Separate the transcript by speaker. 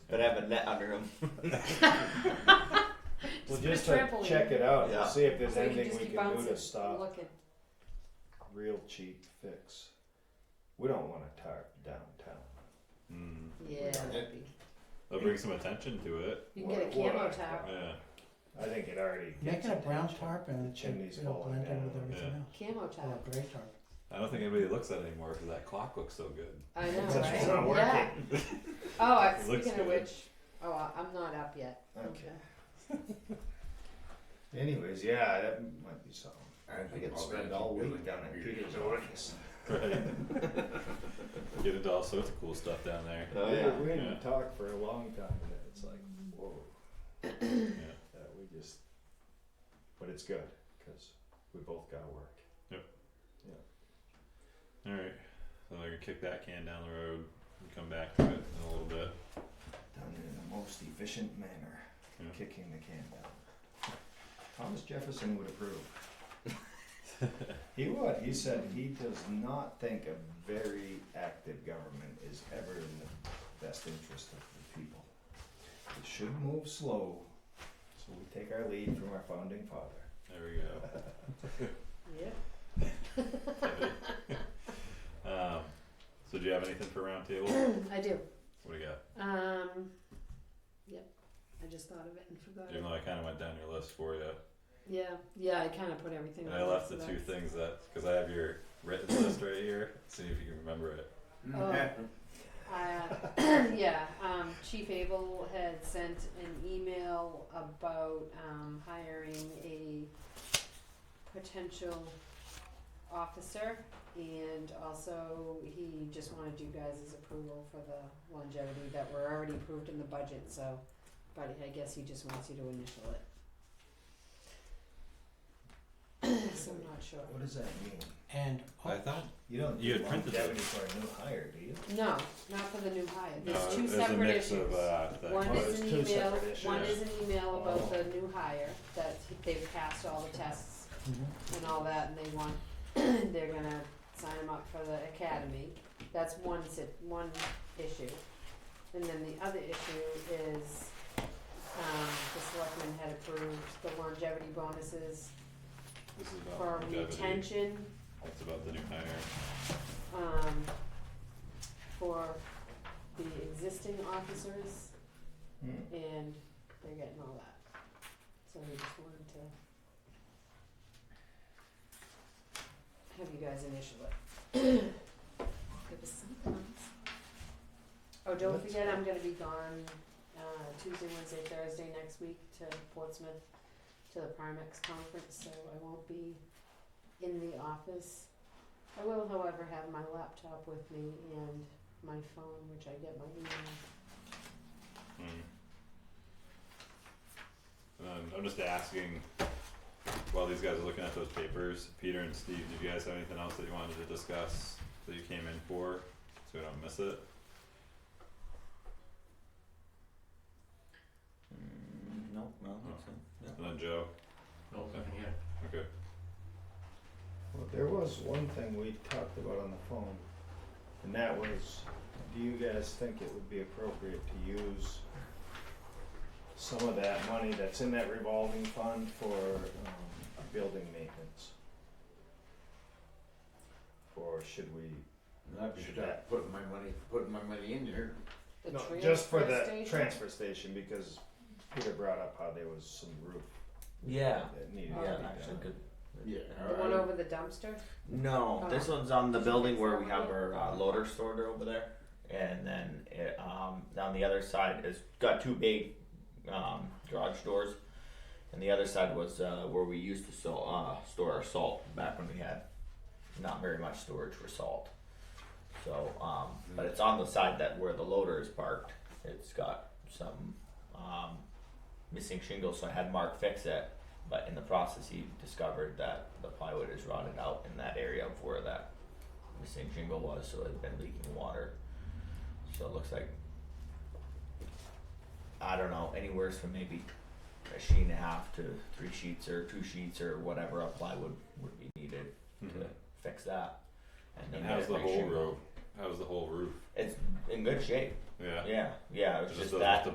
Speaker 1: but I have a net under him.
Speaker 2: Well,
Speaker 3: put a
Speaker 2: just to
Speaker 3: trampoline.
Speaker 2: check it out
Speaker 1: Yeah.
Speaker 2: and see if there's
Speaker 3: So you can
Speaker 2: anything we
Speaker 3: just keep
Speaker 2: can do
Speaker 3: bouncing
Speaker 2: to
Speaker 3: and
Speaker 2: stop
Speaker 3: Looking.
Speaker 2: real cheap fix. We don't wanna tarp downtown.
Speaker 4: Mm.
Speaker 3: Yeah. that'd
Speaker 4: It-
Speaker 3: be-
Speaker 4: That'll bring some attention to it.
Speaker 3: You can get a
Speaker 2: What- what
Speaker 3: camo
Speaker 2: I-
Speaker 3: tower.
Speaker 4: Yeah.
Speaker 2: I think it already
Speaker 5: Make
Speaker 2: gets
Speaker 5: it a brown
Speaker 2: attention.
Speaker 5: tarp and
Speaker 2: The chimney's
Speaker 5: it'll
Speaker 2: falling
Speaker 5: blend in with
Speaker 2: down.
Speaker 5: everything
Speaker 4: Yeah.
Speaker 5: else.
Speaker 3: Camo tower.
Speaker 5: Or a gray tarp.
Speaker 4: I don't think anybody looks at it anymore because that clock looks so good.
Speaker 3: I know,
Speaker 2: It's
Speaker 3: right?
Speaker 2: not working.
Speaker 3: Yeah. Oh, I,
Speaker 4: It looks
Speaker 3: speaking of
Speaker 4: good.
Speaker 3: which, oh, I- I'm not up yet.
Speaker 2: Okay. Anyways, yeah, that might be something. I think it's spend all week down at Peter's office.
Speaker 4: Right. Get into all sorts of cool stuff down there.
Speaker 1: Oh
Speaker 2: We-
Speaker 1: yeah.
Speaker 2: We
Speaker 4: Yeah.
Speaker 2: didn't talk for a long time and then it's like, whoa,
Speaker 4: Yeah.
Speaker 2: that we just, but it's good, cause we both gotta work.
Speaker 4: All right. So they're gonna kick that can down the road and come back to it in a little bit.
Speaker 2: Done in the most efficient manner,
Speaker 4: Yeah.
Speaker 2: kicking the can down. Thomas Jefferson would approve. He would, he said he does not think a very active government is ever in the best interest of the people. It should move slow, so we take our lead from our founding father.
Speaker 4: There we go.
Speaker 3: Yep.
Speaker 4: um, so do you have anything for roundtable?
Speaker 3: I do.
Speaker 4: What do you got?
Speaker 3: Um, yep. I just thought of it and forgot. It.
Speaker 4: Even though I kind of went down your list for you,
Speaker 3: Yeah. Yeah. I kind of put everything.
Speaker 4: and
Speaker 3: on
Speaker 4: I left the
Speaker 3: there, so
Speaker 4: two
Speaker 3: that-
Speaker 4: things that because I have your written list right here. See if you can remember it.
Speaker 3: Oh. Uh, yeah. Um, Chief Abel had sent an email about um, hiring a potential officer, and also he just wanted you guys' approval for the longevity that were already approved in the budget. So, but I guess he just wants you to initial it. so I'm not sure.
Speaker 2: What does that mean?
Speaker 5: And oh,
Speaker 4: I thought
Speaker 2: You don't
Speaker 4: You
Speaker 2: do
Speaker 4: had printed
Speaker 2: longevity for a new hire, do you?
Speaker 3: No, not for the new hire. There's
Speaker 4: no,
Speaker 3: two
Speaker 4: it was
Speaker 3: separate
Speaker 4: Uh, a mix
Speaker 3: issues.
Speaker 4: of uh, the
Speaker 3: One
Speaker 2: Oh,
Speaker 3: is
Speaker 2: it's
Speaker 3: an
Speaker 2: two
Speaker 3: email,
Speaker 2: separate issues.
Speaker 3: one is an email
Speaker 2: Oh.
Speaker 3: about the new hire, that they've passed all the tests
Speaker 5: mhm.
Speaker 2: Mm-hmm.
Speaker 3: and all that, and they want, they're gonna sign them up for the academy. That's one sit, one issue. And then the other issue is, um, the selectmen had approved the longevity bonuses
Speaker 4: this
Speaker 2: Oh,
Speaker 4: is about
Speaker 3: for
Speaker 4: longevity.
Speaker 3: retention,
Speaker 4: It's about the new hire.
Speaker 3: um, for the existing officers.
Speaker 2: Hmm.
Speaker 3: and they're getting all that. So we just wanted to have you guys initial it. There was something else. Oh, don't
Speaker 2: Let's-
Speaker 3: forget, I'm gonna be gone, uh, Tuesday, Wednesday, Thursday next week to Portsmouth, to the Primex conference, so I won't be in the office. I will however have my laptop with me and my phone, which I get my email
Speaker 4: Mm. And then Um, I'm just asking, while these guys are looking at those papers, Peter and Steve, did you guys have anything else that you wanted to discuss that you came in for, so we don't miss it?
Speaker 2: Hmm.
Speaker 1: Mm, no, no, that's it.
Speaker 4: And then Joe,
Speaker 6: No, nothing yet.
Speaker 4: okay,
Speaker 2: Well, there was one thing we talked about on the phone, and that was, do you guys think it would be appropriate to use some of that money that's in that revolving fund for, um, building maintenance? Or should we,
Speaker 6: I've just
Speaker 2: Should that-
Speaker 6: putting my money, putting my money in there.
Speaker 3: The
Speaker 2: no,
Speaker 3: transfer
Speaker 2: just for the
Speaker 3: station?
Speaker 2: transfer station, because Peter brought up how there was some roof
Speaker 1: Yeah.
Speaker 2: that needed to be
Speaker 1: Yeah,
Speaker 2: done.
Speaker 1: actually good.
Speaker 6: Yeah.
Speaker 3: The one over the dumpster?
Speaker 1: No,
Speaker 3: Oh.
Speaker 1: this one's on the building where we have our uh, loader stored over there, and then it, um, on the other side it's got two big um, garage doors, and the other side was uh, where we used to so, uh, store our salt back when we had not very much storage for salt. So, um, but it's on the side that where the loader is parked. It's got some um, missing shingles, so I had Mark fix it. But in the process, he discovered that the plywood is rotted out in that area of where that missing shingle was, so it's been leaking water. So it looks like, I don't know, anywhere from maybe a sheet and a half to three sheets or two sheets or whatever of plywood would be needed to
Speaker 4: Mhm.
Speaker 1: fix that.
Speaker 4: and
Speaker 1: then
Speaker 4: how's the
Speaker 1: make
Speaker 4: whole
Speaker 1: shingle.
Speaker 4: roof, how's the whole roof?
Speaker 1: It's in good shape.
Speaker 4: yeah.
Speaker 2: Yeah, yeah, it was
Speaker 4: Just
Speaker 2: just
Speaker 4: the-
Speaker 2: that.
Speaker 4: the